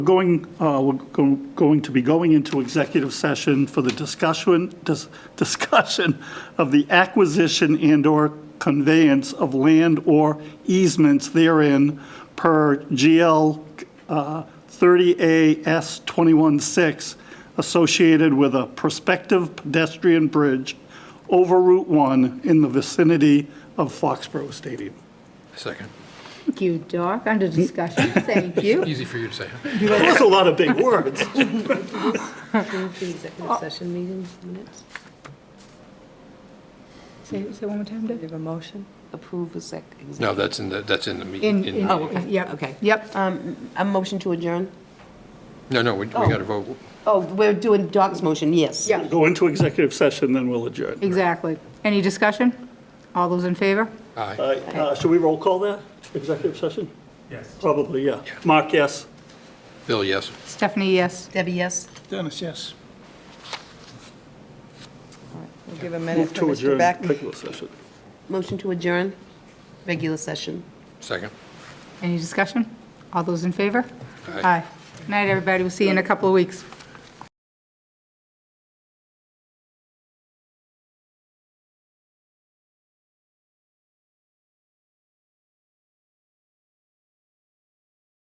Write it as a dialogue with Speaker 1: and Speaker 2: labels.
Speaker 1: Going, uh, we're go- going to be going into executive session for the discussion, dis- discussion of the acquisition and/or conveyance of land or easements therein per GL uh, 30AS 21-6 associated with a prospective pedestrian bridge over Route 1 in the vicinity of Foxborough Stadium.
Speaker 2: Second.
Speaker 3: Thank you, Doc. Under discussion, thank you.
Speaker 2: Easy for you to say.
Speaker 1: That was a lot of big words.
Speaker 4: The executive
Speaker 3: Oh.
Speaker 4: session meeting minutes.
Speaker 3: Say say one more time, Doc.
Speaker 4: Do you have a motion? Approve exec. exec-
Speaker 2: No, that's in the, that's in the
Speaker 3: In,
Speaker 2: meeting.
Speaker 3: in,
Speaker 4: Oh, okay.
Speaker 3: yep.
Speaker 4: Okay.
Speaker 3: Yep.
Speaker 4: Um, A motion to adjourn?
Speaker 2: No, no, we we got to vote.
Speaker 4: Oh, we're doing Doc's motion, yes.
Speaker 3: Yeah.
Speaker 1: Go into executive session, then we'll adjourn.
Speaker 3: Exactly. Any discussion? All those in favor?
Speaker 2: Aye.
Speaker 1: All right, uh, should we roll call that, executive session? Yes. Probably, yeah. Mark, yes.
Speaker 2: Bill, yes.
Speaker 3: Stephanie, yes.
Speaker 4: Debbie, yes?
Speaker 1: Dennis, yes.
Speaker 4: We'll give a
Speaker 1: Move to adjourn regular session.
Speaker 4: Motion to adjourn, regular session.
Speaker 2: Second.
Speaker 3: Any discussion? All those in favor?
Speaker 2: Aye.
Speaker 3: Aye. Night, everybody. We'll see you in a couple of weeks.